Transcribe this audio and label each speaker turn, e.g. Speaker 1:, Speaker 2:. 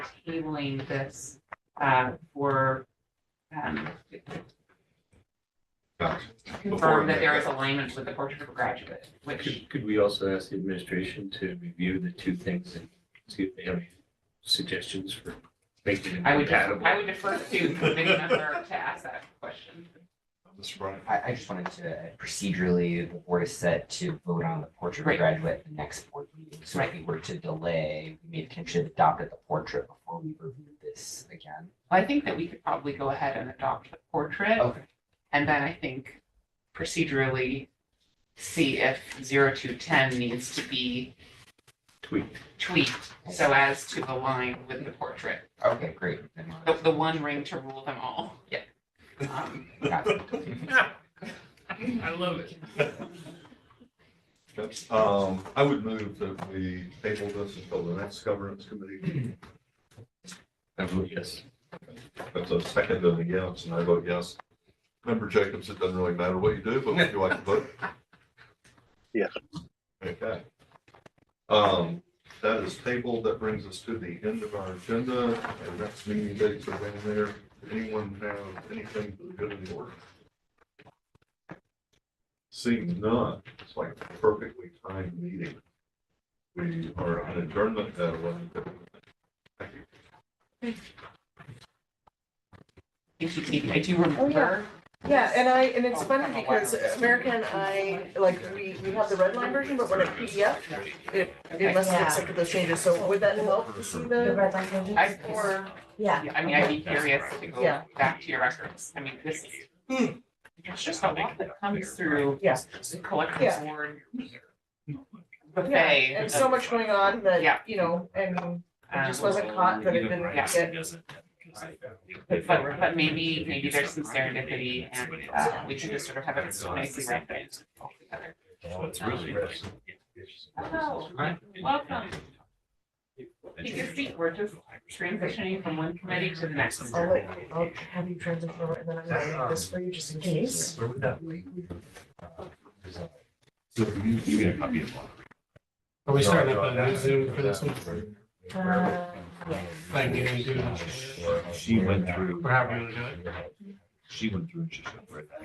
Speaker 1: tabling this uh, for um, to
Speaker 2: Gotcha.
Speaker 1: confirm that there is alignment with the portrait of a graduate, which
Speaker 3: Could, could we also ask the administration to review the two things and see if they have any suggestions for making it
Speaker 1: I would,
Speaker 3: compatible?
Speaker 1: I would defer to the committee member to ask that question.
Speaker 2: Mr. Bryant,
Speaker 4: I, I just wanted to uh, procedurally, the board is set to vote on the portrait of
Speaker 1: Right.
Speaker 4: a graduate at the next board meeting. So if we were to delay, we may potentially have adopted the portrait before we reviewed this again.
Speaker 1: I think that we could probably go ahead and adopt the portrait,
Speaker 4: Okay.
Speaker 1: and then I think procedurally see if zero to ten needs to be
Speaker 3: Tweak.
Speaker 1: tweaked so as to align with the portrait.
Speaker 4: Okay, great. Then we'll-
Speaker 1: The, the one ring to rule them all.
Speaker 4: Yeah.
Speaker 1: Um,
Speaker 4: got it.
Speaker 3: I love it.
Speaker 2: Um, I would move that we table this until the next governance committee.
Speaker 3: I vote yes.
Speaker 2: That's a second and a yes, and I vote yes. Member Jacobs, it doesn't really matter what you do, but would you like to vote?
Speaker 5: Yes.
Speaker 2: Okay. Um, that is tabled. That brings us to the end of our agenda. Our next meeting dates are in there. Anyone have anything for the good of the order? Seeing none, it's like a perfectly timed meeting. We are on adjournment at eleven fifty. Thank you.
Speaker 1: If you, if- I do
Speaker 6: Oh,
Speaker 1: remember
Speaker 6: yeah. Yeah, and I, and
Speaker 1: Oh,
Speaker 6: it's funny because America and I, like, we, we have the red line version, but we're in PDF. It, it must have accepted those changes, so would that help to see
Speaker 7: The
Speaker 6: the?
Speaker 7: red line changes?
Speaker 1: I, or,
Speaker 7: Yeah.
Speaker 1: I mean, I'd be curious to go
Speaker 6: Yeah.
Speaker 1: back to your records. I mean, this is. There's just a lot that comes through.
Speaker 6: Yeah.
Speaker 1: the Collective
Speaker 6: Yeah.
Speaker 1: board
Speaker 6: Yeah,
Speaker 1: buffet.
Speaker 6: And so much going on
Speaker 1: Yeah.
Speaker 6: that, you know, and
Speaker 1: um,
Speaker 6: it just wasn't caught that it didn't
Speaker 1: Yeah.
Speaker 6: get,
Speaker 1: But, but but maybe, maybe there's some serendipity and, uh, we should just sort of have a nicely wrapped it all together.
Speaker 3: It's really.
Speaker 1: Hello, oh, welcome. You can see, we're just transitioning from one committee to the next.
Speaker 6: I'll let, I'll have you transition over and then I'm gonna make this for you just in case.
Speaker 5: You get a copy of one.
Speaker 8: Are we starting up on Zoom for this one?
Speaker 7: Uh,
Speaker 8: Like, you know, do-
Speaker 5: She went through,
Speaker 8: Or however you want to do it?
Speaker 5: she went through and she just read that.